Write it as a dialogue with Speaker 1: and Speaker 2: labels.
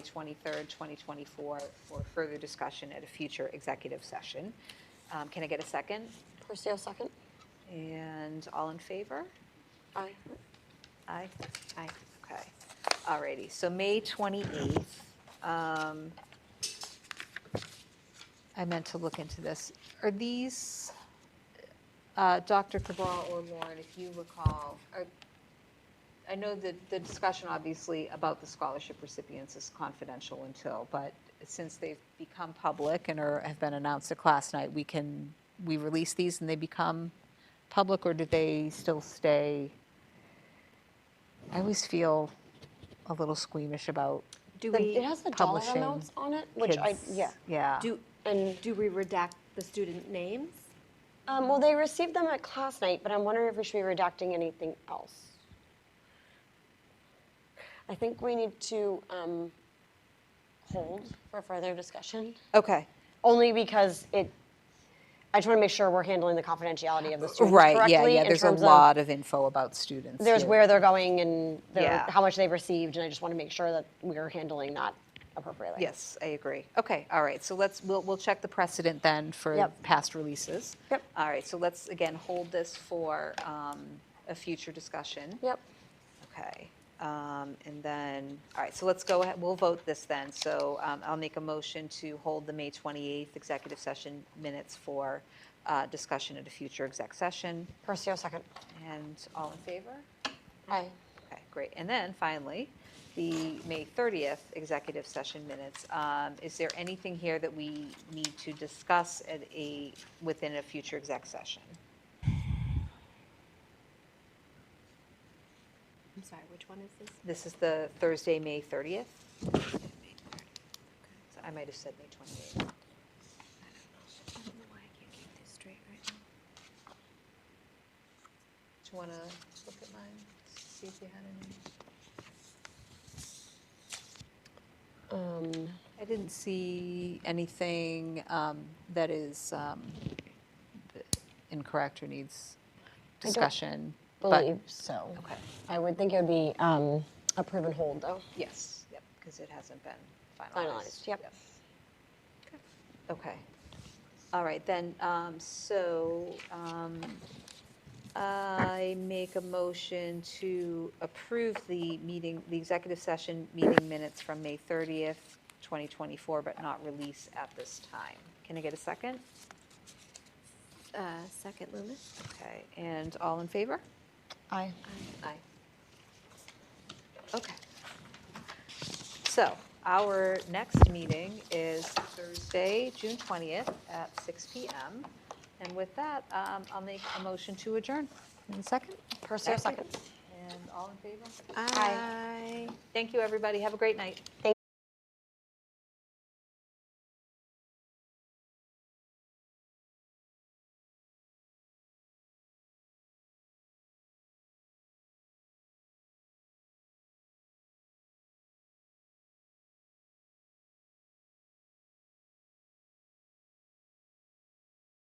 Speaker 1: 23rd, 2024, for further discussion at a future executive session. Um, Can I get a second?
Speaker 2: Perseo, second.
Speaker 1: And all in favor?
Speaker 2: Aye.
Speaker 1: Aye. Aye. Okay. All righty. So May 28th. um, I meant to look into this. Are these, uh, Dr. Cabral or Lauren, if you recall, are- I know that the discussion obviously about the scholarship recipients is confidential until, but since they've become public and are, have been announced at class night, we can, we release these and they become public or do they still stay? I always feel a little squeamish about
Speaker 3: Do
Speaker 2: Then It
Speaker 3: we,
Speaker 2: has the dollar
Speaker 1: Publishing
Speaker 2: amounts on it, which
Speaker 1: kids.
Speaker 2: I, yeah.
Speaker 1: Yeah.
Speaker 3: do,
Speaker 2: And,
Speaker 3: do we redact the student names?
Speaker 2: um, well, they received them at class night, but I'm wondering if we should be redacting anything else. I think we need to, um, hold for further discussion,
Speaker 1: Okay.
Speaker 2: only because it, I just want to make sure we're handling the confidentiality of the students
Speaker 1: Right, yeah,
Speaker 2: correctly
Speaker 1: yeah,
Speaker 2: in
Speaker 1: there's a
Speaker 2: terms of-
Speaker 1: lot of info about students.
Speaker 2: There's
Speaker 1: yeah.
Speaker 2: where they're going and their,
Speaker 1: Yeah.
Speaker 2: how much they've received, and I just want to make sure that we're handling that appropriately.
Speaker 1: Yes, I agree. Okay, all right, so let's, we'll, we'll check the precedent then for
Speaker 2: Yep.
Speaker 1: past releases.
Speaker 2: Yep.
Speaker 1: All right, so let's, again, hold this for um, a future discussion.
Speaker 2: Yep.
Speaker 1: Okay, um, and then, all right, so let's go ahead, we'll vote this then. So um, I'll make a motion to hold the May 28th executive session minutes for uh, discussion at a future exec session.
Speaker 2: Perseo, second.
Speaker 1: And all in favor?
Speaker 2: Aye.
Speaker 1: Okay, great. And then finally, the May 30th executive session minutes. Um, Is there anything here that we need to discuss at a, within a future exec session?
Speaker 3: I'm sorry, which one is this?
Speaker 1: This is the Thursday, May 30th? So I might have said May 28th.
Speaker 3: I don't know why I can't keep this straight right
Speaker 1: Do you want to look at mine, see if you had any?
Speaker 2: Um,
Speaker 1: I didn't see anything um, that is um, incorrect or needs
Speaker 2: I don't
Speaker 1: discussion. but-
Speaker 2: believe so.
Speaker 1: Okay.
Speaker 2: I would think it would be um, a proven hold, though.
Speaker 1: Yes, Oh, yep, because it hasn't been finalized.
Speaker 2: Finalized, yep.
Speaker 1: Okay. All right, then, um, so um, I make a motion to approve the meeting, the executive session meeting minutes from May 30th, 2024, but not release at this time. Can I get a second?
Speaker 3: now. Uh, second, Loomis?
Speaker 1: Okay, and all in favor?
Speaker 2: Aye.
Speaker 1: Aye. Okay. So our next meeting is Thursday, June 20th at 6 PM. And with that, um, I'll make a motion to adjourn. In second?
Speaker 2: Perseo,
Speaker 1: Second.
Speaker 2: second.
Speaker 1: And all in favor?
Speaker 3: Aye.
Speaker 1: Thank you, everybody. Have a great night.